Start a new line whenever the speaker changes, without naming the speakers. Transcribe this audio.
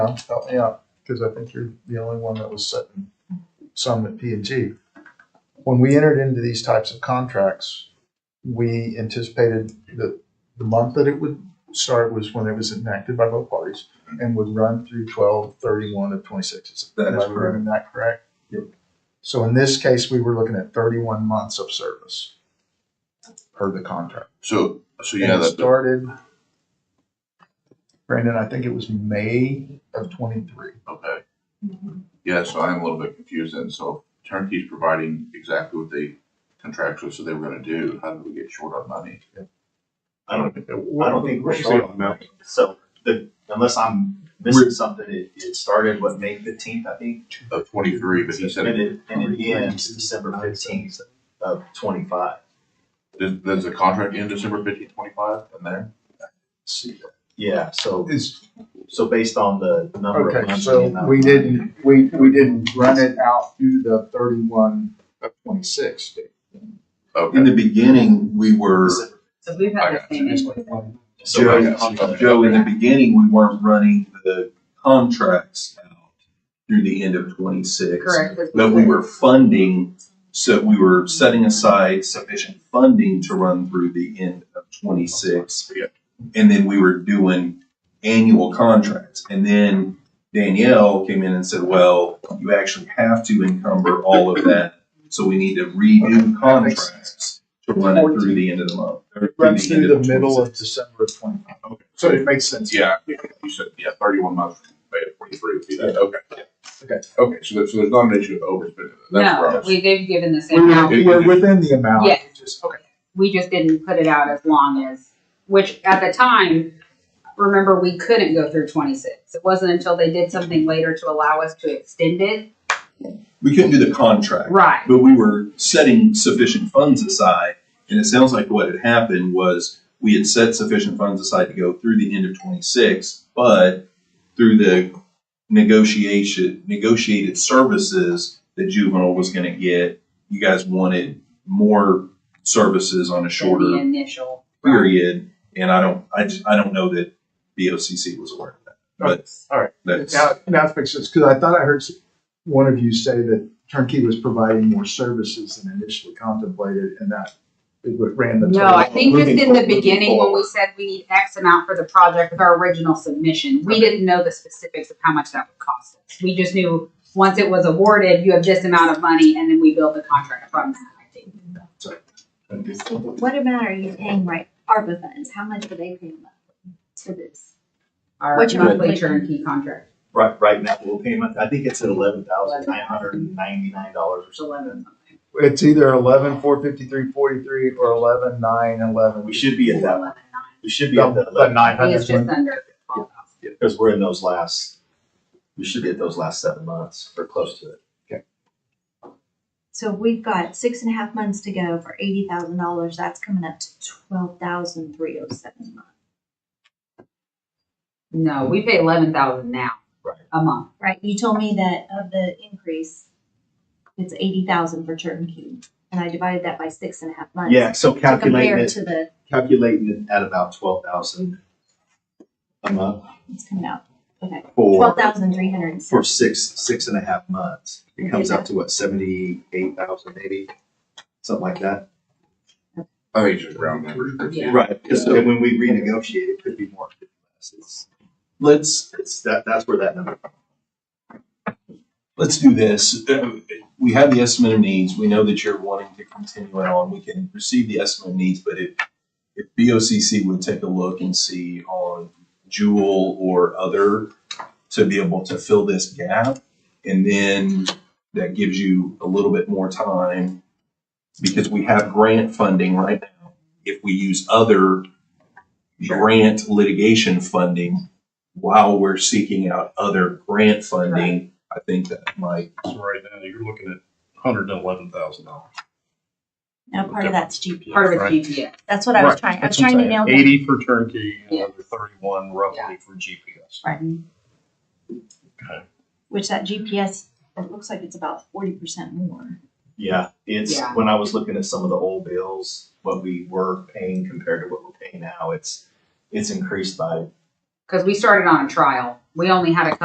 Yeah, help me out, because I think you're the only one that was setting some at P and G. When we entered into these types of contracts, we anticipated that the month that it would start was when it was enacted by both parties and would run through twelve thirty-one of twenty-six.
That is
Am I remembering that correct?
Yep.
So in this case, we were looking at thirty-one months of service per the contract.
So, so
And
yeah,
it
that,
started, Brandon, I think it was May of twenty-three.
okay.
Mm-hmm.
Yeah, so I am a little bit confused then. So turnkey's providing exactly what they contractually said they were gonna do. How did we get short on money?
I don't, I
Well,
don't think we're
we'll see
short
on
on
that.
money. So the, unless I'm missing something, it, it started what, May fifteenth, I think?
Of twenty-three, but he
And
said,
it, and it ends December fifteenth of twenty-five.
does, does the contract end December fifteen twenty-five in there?
Yeah, so,
Is,
so based on the number of
okay,
months.
so
and the amount
we
of money-
didn't, we, we didn't run it out through the thirty-one of twenty-six. did
In the
Okay.
beginning, we were,
So we've
I
had
got
the same issue.
we?
So
I
Joe,
got you.
Joe, in the beginning, we weren't running the contracts out through the end of twenty-six.
Correct.
But we were funding, so we were setting aside sufficient funding to run through the end of twenty-six.
Yeah.
And then we were doing annual contracts. And then Danielle came in and said, well, you actually have to encumber all of that. So we need to redo contracts to run it through the end of the month. or
It runs
end
through the
of
middle
26.
of December of twenty-five. So it makes sense.
Yeah, you said, yeah, thirty-one months, May of twenty-three would be that, okay.
Okay.
Okay, so there's, so there's not an issue of overspending. That's where I
No,
was-
we, they've given the
We
same
We're,
amount.
It-
we're within the amount.
Yeah.
Just- Okay.
We just didn't put it out as long as, which at the time, remember, we couldn't go through twenty-six. It wasn't until they did something later to allow us to extend it.
We couldn't do the contract.
Right.
But we were setting sufficient funds aside, and it sounds like what had happened was we had set sufficient funds aside to go through the end of twenty-six, but through the negotiation, negotiated services that juvenile was gonna get, you guys wanted more services on a
The
shorter
initial.
period, and I don't, I just, I don't know that BOCC was aware of that. But
All right.
that's,
Now, now it makes sense, because I thought I heard s- one of you say that Turnkey was providing more services than initially contemplated, and that it would- ran the.
No,
total.
I think just in the
Moving
beginning, when we
forward.
said we need X amount for the project with our original submission, we didn't know the specifics of how much that would cost us. We just knew, once it was awarded, you have this amount of money, and then we build the contract from that, I think.
Let's see, but What amount are you paying, right, ARPA funds, how much are they paying for this?
Our
What's your
monthly
monthly?
turnkey contract,
Right, right now, we'll pay month, I think it's at eleven thousand nine hundred and ninety-nine dollars or
it's
something.
eleven something.
It's either eleven four fifty-three forty-three or eleven nine eleven.
We should be at that,
Eleven
we should be at the
The
eleven,
nine
nine. It's
hundred
just
one.
under twelve thousand.
because we're in those last, we should be at those last seven months, or close to it.
So we've got six and a half months to go for eighty thousand dollars, that's coming up to twelve thousand three oh seven a month,
No, we pay eleven thousand now,
Right.
a month.
right? You told me that of the increase, it's eighty thousand for turnkey, and I divided that by six and a half months.
Yeah, so
To
calculating
compare
it,
to the,
calculating it at about twelve thousand a month
it's coming out, okay, twelve
for,
thousand three hundred and
for
seven,
six, six and a half months. It comes out to what, seventy-eight thousand maybe, something like that?
I think it's just round numbers.
Yeah.
Right. Because then when we renegotiate, it could be more. could be less. It's,
let's,
it's, that, that's where that number.
let's do this. Uh, We have the estimate of needs. We know that you're wanting to continue it on. We can receive the estimate of needs, but if, if BOCC would take a look and see on Jewel or other to be able to fill this gap, and then that gives you a little bit more time because we have grant funding right now. If we use other grant litigation funding while we're seeking out other grant funding, I think that might.
So right now, you're looking at hundred and eleven thousand dollars.
now part of that's GPS.
Part of
Right.
it's GPS.
That's what I was trying, I was trying to nail down.
Eighty for turnkey,
Yeah.
another thirty-one
Yeah.
roughly for GPS.
Right.
Okay.
Which that GPS, it looks like it's about forty percent more.
Yeah, it's,
Yeah.
when I was looking at some of the old bills, what we were paying compared to what we're paying now, it's, it's increased by
Because we started on a trial. We only had a